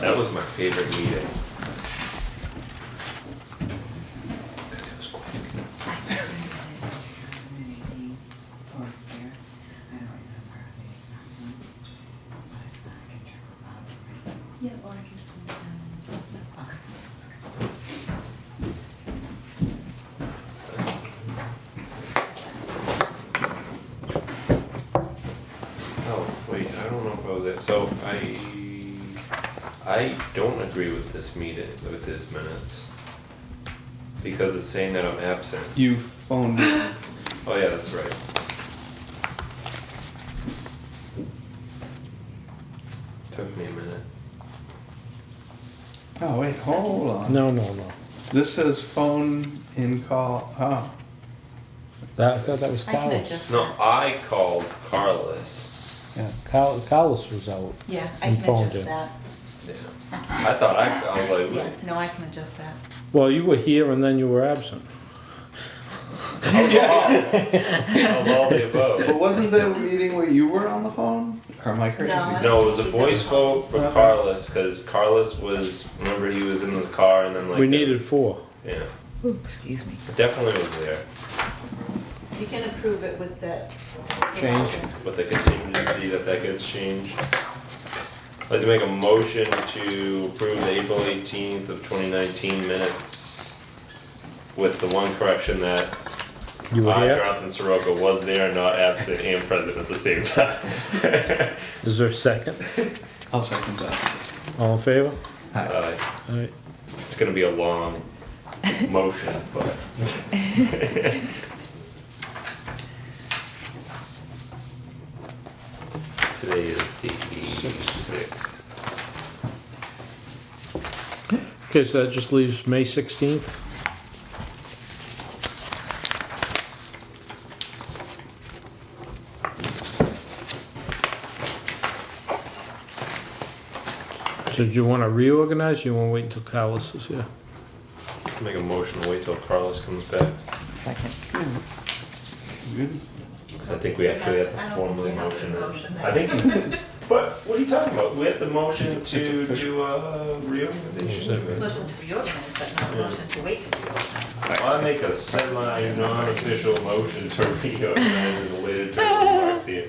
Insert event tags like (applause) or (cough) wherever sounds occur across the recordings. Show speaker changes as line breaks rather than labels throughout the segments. That was my favorite meeting. Cause it was quick.
Yeah, or I can just. leave it down.
Oh, wait, I don't know if I was there, so I, I don't agree with this meeting, with his minutes. Because it's saying that I'm absent.
You phoned me.
Oh yeah, that's right. Took me a minute.
Oh, wait, hold on.
No, no, no.
This says phone in call, oh.
That, I thought that was
I can
Carlos.
adjust
No,
that.
I called Carlos.
Yeah, Car- Carlos was out.
Yeah, I
You
can
phoned
adjust
it.
that.
Yeah. I thought I, I was like,
Yeah,
wait.
no, I can adjust that.
Well, you were here and then you were absent.
Of all the
But
above.
wasn't there a meeting where you were on the phone? Or am I crazy?
No.
No, it was a voice vote for Carlos, cause Carlos was, remember he was in the car and then like. uh,
We
the-
needed four.
Yeah,
Excuse me.
definitely was there,
You can approve it with the.
Change.
but the contingency that that gets changed. I'd like to make a motion to approve the April eighteenth of twenty nineteen minutes with the one correction that
You were
I,
here?
Jonathan Soroka, was there, not absent and present at the same time. (laughs)
Is there a second?
I'll second that.
All in favor?
Hi.
Uh,
All right.
It's gonna be a long motion, but. (laughs) Today is the sixth.
Okay, so that just leaves May 16th. So do you want to reorganize? You want to wait until Carlos is here?
Make a motion, to wait till Carlos comes back,
Second.
Good.
'cause I think we actually have
I
to
don't
formally
think you have to
motion
motion
it.
that.
I think, you- but what are you talking about? We have the motion
It's
to
official.
do a reorganization.
Exactly.
of it.
Motion to reorganize, but not a
Yeah.
motion to wait to reorganize.
I make a semi non-official motion to reorganize the later term of here.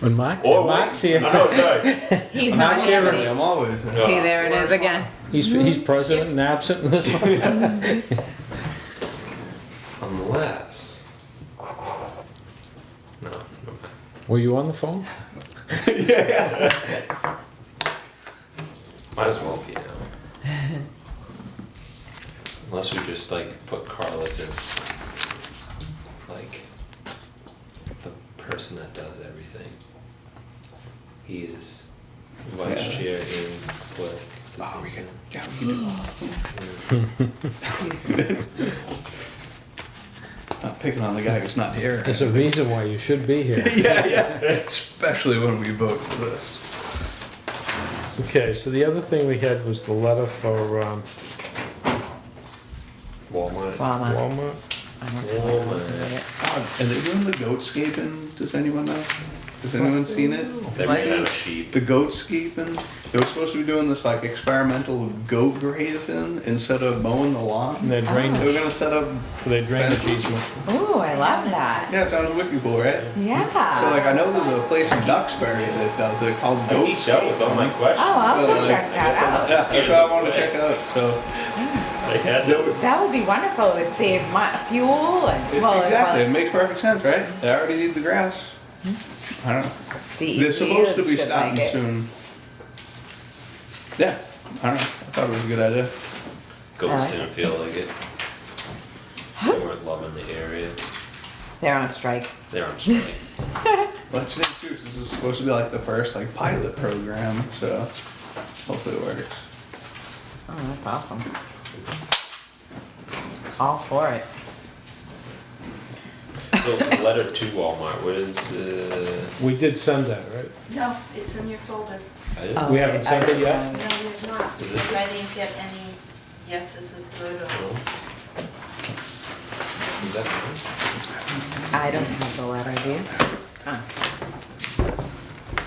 When Mark's
Or
here,
wait-
Mark's here.
I know, sorry.
He's
not here.
Really, I'm always.
No.
See, there it is again.
He's, he's president and absent in this (laughs) one.
Unless. No. never mind.
Were you on the phone?
Might as well be now.
(laughs)
Unless we just like put Carlos as like the person that does everything. He is vice chair
Yeah.
in what?
Oh, we
can.
could, yeah, we could do that. Not picking on the guy who's not here.
There's a reason why you should be (laughs) here.
Yeah, yeah, especially when we vote for this.
Okay, so the other thing we had was the letter for um,
Walmart.
Obama.
Walmart.
I don't know what happened to it.
God, Are they doing the goat scaping? Does anyone know? Has anyone seen it?
They
What?
ran out of sheep.
the goat skeeping. They were supposed to be doing this like experimental goat grazing instead of mowing the
And
lawn.
their
They were
drainage,
gonna set up.
their drainage easement.
Ooh, I love that.
Yeah, it sounds wicked cool, right? So like,
Yeah.
I know there's a place in Duxbury that does it called
I
Goat.
geeked out with all my
Oh,
questions.
I'll
So,
go check
I guess I
that
must
out.
Yeah, that's what I wanted to check out. So
I had no.
That would be wonderful. It'd save my fuel and,
it,
well,
exactly, it
well,
makes perfect sense, right? They already need the grass. I don't. know. They're supposed to
DEP
be
Hmm? should like
stopping
it.
soon. Yeah, I don't know. I thought it was a good idea.
Ghosts
Alright.
didn't feel like it. They weren't loving the area.
They're on strike.
They're on strike.
Let's make sure this is supposed to be like the first like pilot program, so hopefully it works.
Oh, that's awesome. All for it.
So letter to Walmart, what is, uh,
We did send that, right?
No, it's in your folder.
I didn't-
Oh,
We haven't
okay,
sent it
I-
yet?
No, you have not.
Is this-
I didn't get any, yes, this is good, or
Is that mine?
I don't have the letter, do you? Oh.